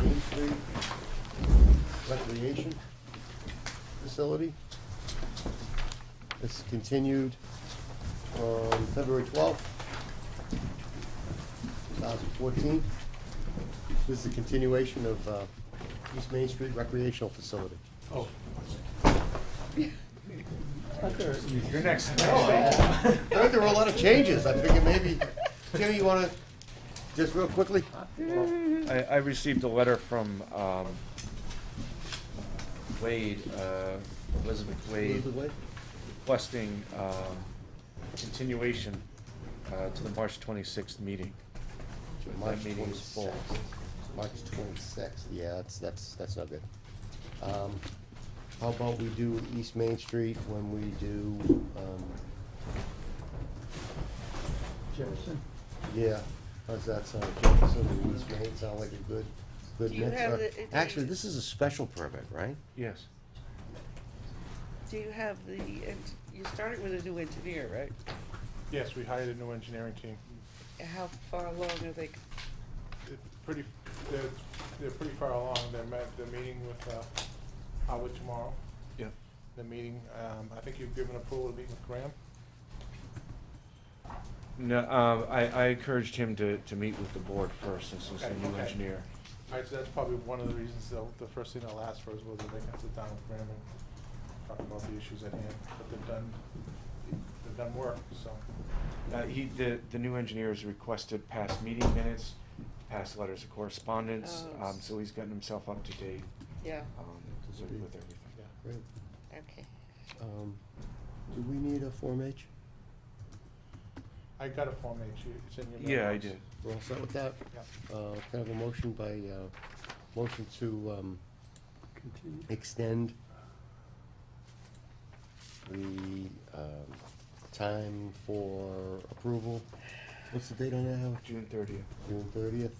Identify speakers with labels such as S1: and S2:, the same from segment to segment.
S1: Main Street Recreation Facility. It's continued on February twelfth, two thousand fourteen. This is a continuation of uh, East Main Street Recreational Facility.
S2: Oh.
S3: You're next.
S1: I heard there were a lot of changes, I figured maybe, Jimmy, you wanna, just real quickly?
S3: I, I received a letter from, um, Wade, uh, Elizabeth Wade,
S1: Elizabeth Wade?
S3: requesting, um, continuation, uh, to the March twenty-sixth meeting.
S1: March
S3: That meeting is full.
S1: 26th. March twenty-sixth, yeah, that's, that's, that's not good. Um, How about we do East Main Street when we do, um,
S2: Jefferson?
S1: yeah, how's that sound, Jefferson and East Main, sound like a good, good
S4: Do you
S1: mix?
S4: have
S1: Uh,
S4: the- it-
S1: Actually, this is a special permit, right?
S3: Yes.
S4: Do you have the, ent- you started with a new engineer, right?
S2: Yes, we hired a new engineering team.
S4: How far along are they?
S2: It's pretty, they're, they're pretty far along. They're met, they're meeting with, uh, Howard tomorrow.
S3: Yeah.
S2: They're meeting, um, I think you've given approval to meet with Graham.
S3: No, um, I, I encouraged him to, to meet with the board first, since he's a
S2: Okay,
S3: new
S2: okay.
S3: engineer.
S2: All right, so that's probably one of the reasons, though, the first thing I'll ask for is whether they can sit down with Graham and talk about the issues at hand, but they've done, they've done work, so.
S3: Uh, he, the, the new engineer has requested past meeting minutes, past letters of correspondence,
S4: Oh.
S3: um, so he's gotten himself up to date,
S4: Yeah,
S3: um, with everything.
S2: Yeah.
S1: Great.
S4: okay.
S1: Um, Do we need a Form H?
S2: I got a Form H, You- it's in your mailbox.
S3: Yeah, I did.
S1: We're all set with that?
S2: Yeah.
S1: Uh, Can I have a motion by, uh, motion to um, extend the um, time for approval? What's the date on that, Howard?
S3: June thirtieth.
S1: June thirtieth,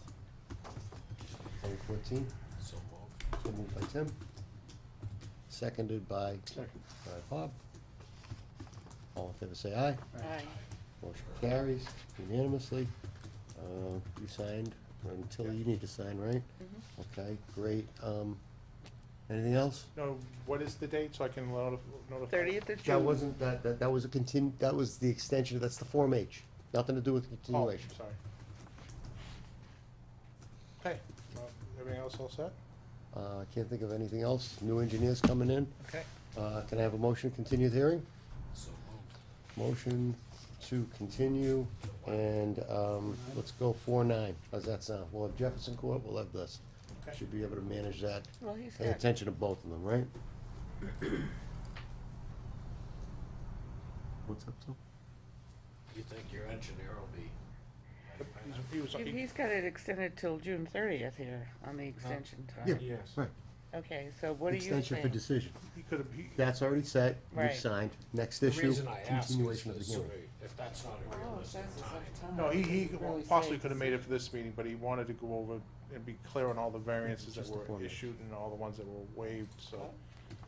S1: twenty fourteen? So moved. So moved by Tim, seconded by
S2: Second.
S1: by Bob. All in favor, say aye.
S4: Aye.
S1: Motion carries unanimously. Uh, You signed, until you need to sign, right?
S4: Mhm.
S2: Mm-hmm.
S1: Okay, great. Um, Anything else?
S2: No, what is the date, so I can notif- notify?
S4: Thirtieth of June.
S1: That wasn't, that, that, that was a continu, that was the extension, that's the Form H. Nothing to do with
S2: Oh,
S1: continuation.
S2: sorry. Okay, well, everything else all set?
S1: Uh, I can't think of anything else. New engineers coming in.
S2: Okay.
S1: Uh, can I have a motion to continue the hearing? Motion to continue, and, um, let's go four nine. How's that sound? We'll have Jefferson Court, we'll have this.
S2: Okay.
S1: Should be able to manage that.
S4: Well, he's
S1: Pay
S4: got,
S1: attention to both of them, right? What's up, Tom?
S5: You think your engineer will be,
S2: He's- He was,
S4: he-
S2: he-
S4: he's got it extended till June thirtieth here on the extension
S1: Yeah.
S4: time.
S3: Yes.
S1: Right.
S4: Okay, so what are you
S1: Extension for
S4: saying?
S1: decision.
S2: he could have, he,
S1: That's already set, you've
S4: Right.
S1: signed. Next
S5: the
S1: issue,
S5: reason I ask is
S1: continuation of
S5: for
S1: the
S5: the
S1: hearing.
S5: survey, if that's not a
S4: Oh, it
S5: realistic
S4: says it's
S5: time.
S4: up time.
S2: no, he, he
S4: Doesn't really
S2: possibly
S4: say.
S2: could have made it for this meeting, but he wanted to go over and be clear on all the variances that
S1: Just the
S2: were
S1: format.
S2: issued and all the ones that were waived, so.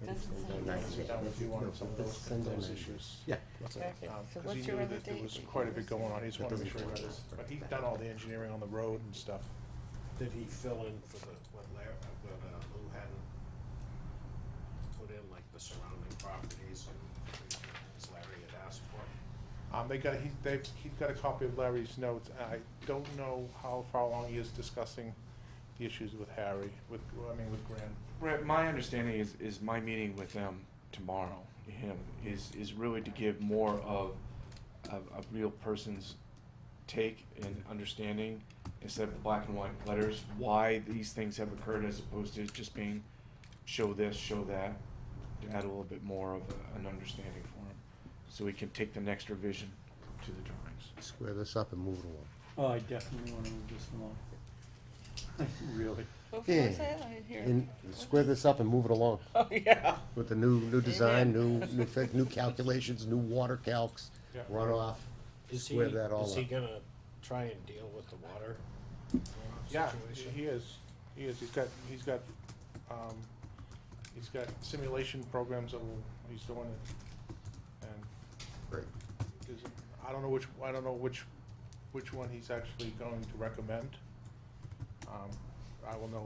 S4: Doesn't
S2: And
S4: sound
S2: I
S4: like
S2: can sit
S4: it.
S2: down with you on some of those,
S1: Send them
S2: those
S1: in.
S2: issues.
S1: Yeah. that's it.
S4: Okay,
S2: Um,
S4: so
S2: 'cause he
S4: what's
S2: knew
S4: your other
S2: that There
S4: date?
S2: was quite a bit going on, he just wanted to make sure he got his, but he's done all the engineering on the road and stuff.
S5: Did he fill in for the, what Larry, what uh, Lou hadn't put in, like the surrounding properties and as Larry had asked for?
S2: Um, they got, he, they, he got a copy of Larry's notes, and I don't know how far along he is discussing the issues with Harry, with, I mean, with Graham.
S3: Right, my understanding is, is my meeting with them tomorrow, him, is, is really to give more of, of a real person's take and understanding instead of the black and white letters, why these things have occurred as opposed to just being show this, show that, to add a little bit more of a- an understanding for him, so we can take the next revision to the drawings.
S1: Square this up and move it along.
S6: Oh, I definitely wanna move this along. Really?
S4: What
S1: Yeah.
S4: was that? I didn't hear.
S1: And square this up and move it along
S4: Oh, yeah.
S1: with the new, new design, new, new, fi- new calculations, new water calcs,
S2: Yeah.
S1: runoff.
S5: Is he,
S1: Square that all
S5: is he
S1: up.
S5: gonna try and deal with the water runoff
S2: Yeah,
S5: situation?
S2: he is, he is, he's got, he's got, um, he's got simulation programs that will, he's doing it. And
S1: Great.
S2: is, I don't know which, I don't know which, which one he's actually going to recommend. Um, I will know